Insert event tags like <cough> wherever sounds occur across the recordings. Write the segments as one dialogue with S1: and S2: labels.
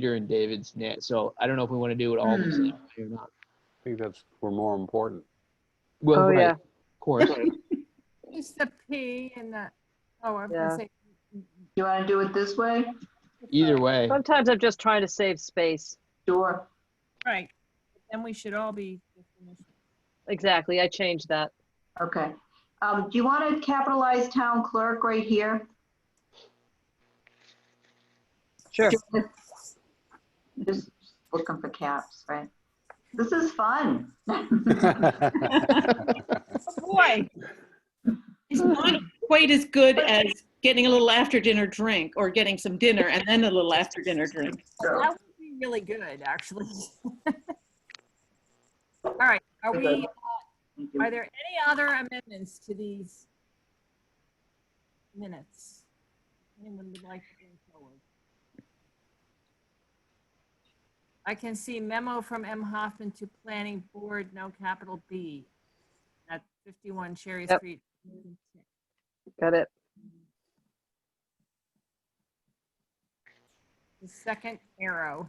S1: Peter and David's net. So I don't know if we want to do it all
S2: Hmm.
S1: the same way or not.
S3: I think that's, we're more important. <laughs>
S1: Well,
S2: Oh,
S1: right,
S2: yeah.
S1: of course.
S4: Just the P and the, oh, I'm
S2: Yeah.
S4: gonna say,
S5: You want to do it this way?
S1: Either way,
S2: Sometimes I'm just trying to save space.
S5: Sure.
S4: right, then we should all be.
S2: Exactly, I changed that.
S5: Okay. Um, do you want to capitalize town clerk right here?
S2: Sure.
S5: Just looking for caps, right? This is fun.
S4: Boy,
S6: It's not quite as good as getting a little after dinner drink or getting some dinner and then a little after dinner drink.
S4: that would be really good,
S2: <laughs>
S4: actually. All right, are we, uh, are there any other amendments to these minutes? Anyone would like to bring forward? I can see memo from M. Hoffman to Planning Board, no capital B, at 51 Cherry
S2: Yep.
S4: Street.
S2: Got it.
S4: The second arrow.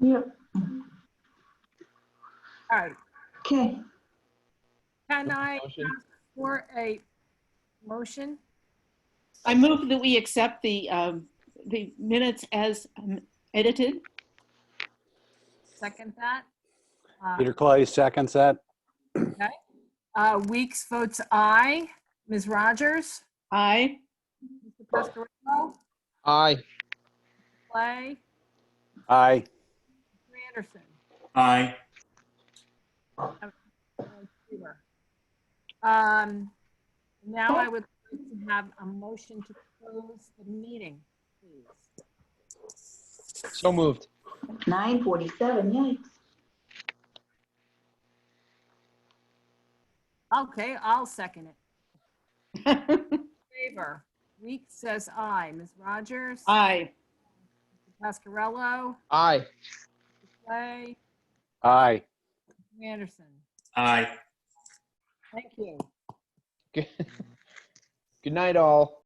S5: Yep.
S4: All right,
S5: Okay.
S4: can I ask
S1: Motion.
S4: for a motion?
S6: I move that we accept the, um, the minutes as um, edited.
S4: Second that? Uh,
S3: Peter Clay seconds that.
S4: Uh, Weeks votes aye. Ms. Rogers?
S6: Aye.
S4: Mr. Pasquarello?
S1: aye.
S4: Clay?
S3: Aye.
S4: Mr. Anderson?
S7: Aye.
S4: and Seaver. Um, Now I would like to have a motion to close the meeting, please.
S1: So moved.
S5: 9:47, yikes.
S4: Okay, I'll second it. Favor? Weeks says aye. Ms. Rogers?
S6: Aye.
S4: Pasquarello?
S1: Aye. <laughs>
S4: Clay?
S3: Aye.
S4: Mr. Anderson?
S7: Aye.
S4: Thank you.
S1: Good night, all.